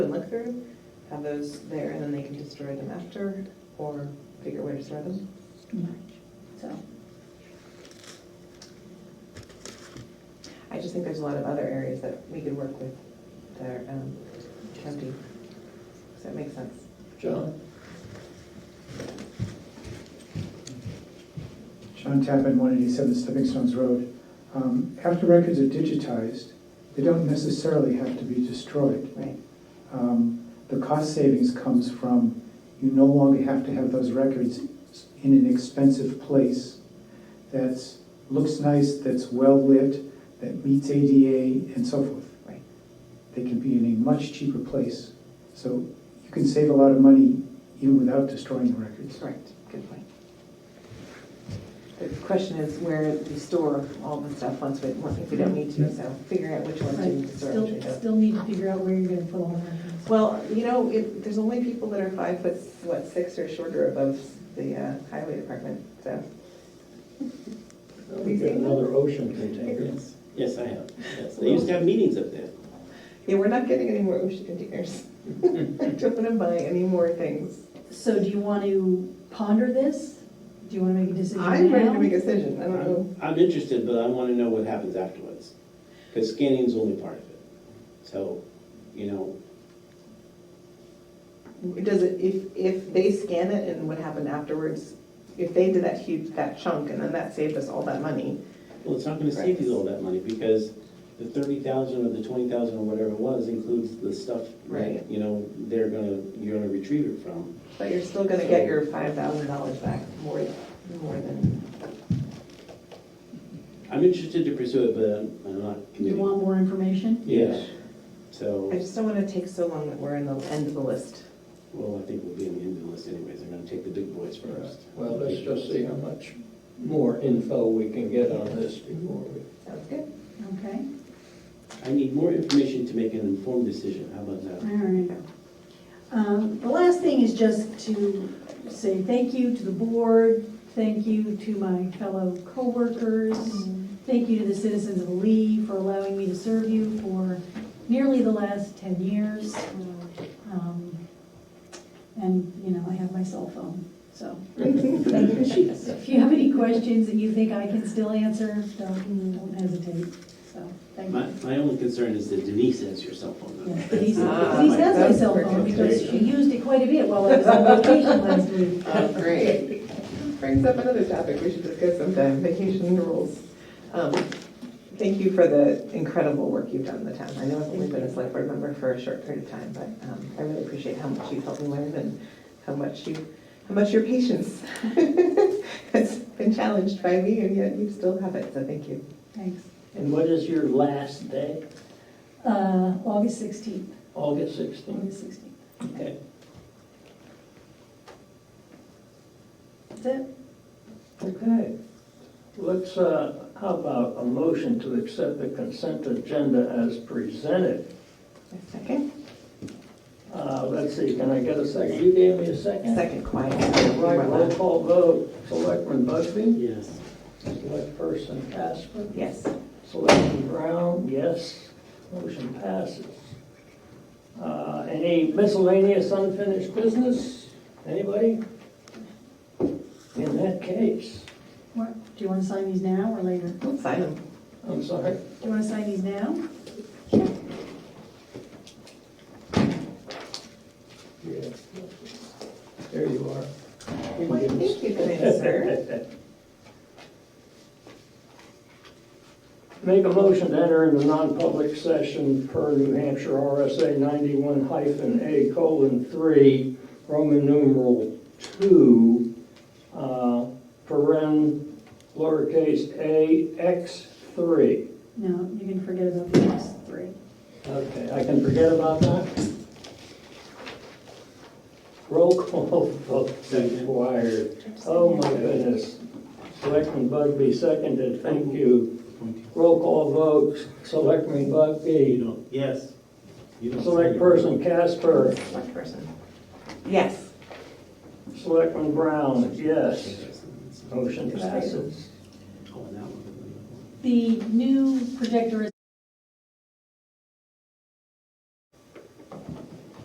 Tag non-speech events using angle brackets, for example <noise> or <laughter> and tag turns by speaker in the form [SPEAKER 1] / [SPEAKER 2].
[SPEAKER 1] and look through, have those there, and then they can destroy them after, or figure a way to store them.
[SPEAKER 2] So,
[SPEAKER 1] I just think there's a lot of other areas that we could work with that are um, empty. Does that make sense?
[SPEAKER 3] John?
[SPEAKER 4] John Tappan, 187 Stepping Stones Road. Um, After records are digitized, they don't necessarily have to be destroyed.
[SPEAKER 1] Right.
[SPEAKER 4] Um, The cost savings comes from, you no longer have to have those records in an expensive place that's, looks nice, that's well-lit, that meets ADA and so forth.
[SPEAKER 1] Right.
[SPEAKER 4] They can be in a much cheaper place. So you can save a lot of money even without destroying the records.
[SPEAKER 1] Correct, good point. The question is where we store all the stuff once we, if we don't need to, so figuring out which ones
[SPEAKER 2] right,
[SPEAKER 1] to store. which we
[SPEAKER 2] still,
[SPEAKER 1] don't.
[SPEAKER 2] still need to figure out where you're gonna put all the records.
[SPEAKER 1] Well, you know, it, there's only people that are five foot, what, six or shorter above the uh, highway department, so.
[SPEAKER 3] We've got another ocean container. Yes, I have. Yes, They used to have meetings up there.
[SPEAKER 1] Yeah, we're not getting any more ocean containers. <laughs> I don't wanna buy any more things.
[SPEAKER 2] So do you want to ponder this? Do you want to make a decision now?
[SPEAKER 1] I'm ready to make a decision, I don't know.
[SPEAKER 3] I'm I'm interested, but I want to know what happens afterwards. Because scanning's only part of it. So, you know,
[SPEAKER 1] Does it, if, if they scan it and what happened afterwards, if they did that huge, that chunk and then that saved us all that money,
[SPEAKER 3] well, it's not going to save you all that money because the thirty thousand or the twenty thousand or whatever it was includes the stuff
[SPEAKER 1] Right.
[SPEAKER 3] that, you know, they're gonna, you're gonna retrieve it from.
[SPEAKER 1] but you're still gonna get your five thousand dollars back more, more than.
[SPEAKER 3] I'm interested to pursue it, but I'm not
[SPEAKER 2] You
[SPEAKER 3] committing.
[SPEAKER 2] want more information?
[SPEAKER 3] Yes.
[SPEAKER 1] I
[SPEAKER 3] So,
[SPEAKER 1] just don't wanna take so long that we're in the end of the list.
[SPEAKER 3] well, I think we'll be in the end of the list anyways. They're gonna take the big boys first.
[SPEAKER 5] Well, let's just see how much more info we can get on this before we.
[SPEAKER 1] Sounds good.
[SPEAKER 2] Okay,
[SPEAKER 3] I need more information to make an informed decision, how about
[SPEAKER 2] all
[SPEAKER 3] that?
[SPEAKER 2] right. Um, The last thing is just to say thank you to the board, thank you to my fellow coworkers, thank you to the citizens of Lee for allowing me to serve you for nearly the last 10 years. Um, And, you know, I have my cell phone, so. If you have any questions that you think I can still answer, don't don't hesitate, so, thank
[SPEAKER 3] My,
[SPEAKER 2] you.
[SPEAKER 3] my only concern is that Denise has your cell phone number.
[SPEAKER 2] Yeah, Denise
[SPEAKER 1] Ah,
[SPEAKER 2] Denise has my
[SPEAKER 1] that's
[SPEAKER 2] cell phone
[SPEAKER 1] perfect.
[SPEAKER 2] because she used it quite a bit while I was on vacation last week.
[SPEAKER 1] Oh, great. Brings up another topic we should discuss sometime, vacation rules. Um, Thank you for the incredible work you've done in the town. I know I've only been a select board member for a short period of time, but um, I really appreciate how much you've helped me learn and how much you, how much your patience <laughs> has been challenged by me, and yet you still have it, so thank you.
[SPEAKER 2] Thanks.
[SPEAKER 5] And what is your last day?
[SPEAKER 2] Uh, August 16th,
[SPEAKER 5] August sixteenth?
[SPEAKER 2] August 16th.
[SPEAKER 5] Okay.
[SPEAKER 2] That's it.
[SPEAKER 5] Okay. Let's, uh, how about a motion to accept the consent agenda as presented?
[SPEAKER 1] A Second,
[SPEAKER 5] Uh, Let's see, can I get a second? You gave me a second?
[SPEAKER 1] second quiet.
[SPEAKER 5] Right, roll call vote. Selectman Busby?
[SPEAKER 3] Yes.
[SPEAKER 5] Select person Casper?
[SPEAKER 1] Yes.
[SPEAKER 5] Selectman Brown, yes. Motion passes. Uh, Any miscellaneous unfinished business? Anybody? In that case,
[SPEAKER 2] What- Do you want to sign these now or later? Do
[SPEAKER 1] Sign them.
[SPEAKER 5] I'm sorry.
[SPEAKER 2] you want to sign these now?
[SPEAKER 5] Yeah. There you are.
[SPEAKER 1] Why, thank you, kind sir.
[SPEAKER 5] Make a motion to enter into non-public session per New Hampshire RSA 91 hyphen A colon 3, Roman numeral 2, uh, paren lowercase a x 3.
[SPEAKER 2] No, you can forget about the last three.
[SPEAKER 5] Okay, I can forget about that? Roll call <laughs> vote required. Oh, my goodness. Selectman Bugby seconded, thank you. Roll call vote, Selectman
[SPEAKER 3] You
[SPEAKER 5] Bugby.
[SPEAKER 3] don't, yes. You don't-
[SPEAKER 5] Select person Casper,
[SPEAKER 1] Select person. Yes.
[SPEAKER 5] Selectman Brown, yes. Motion passes.
[SPEAKER 3] Oh, and that one.
[SPEAKER 2] The new projector is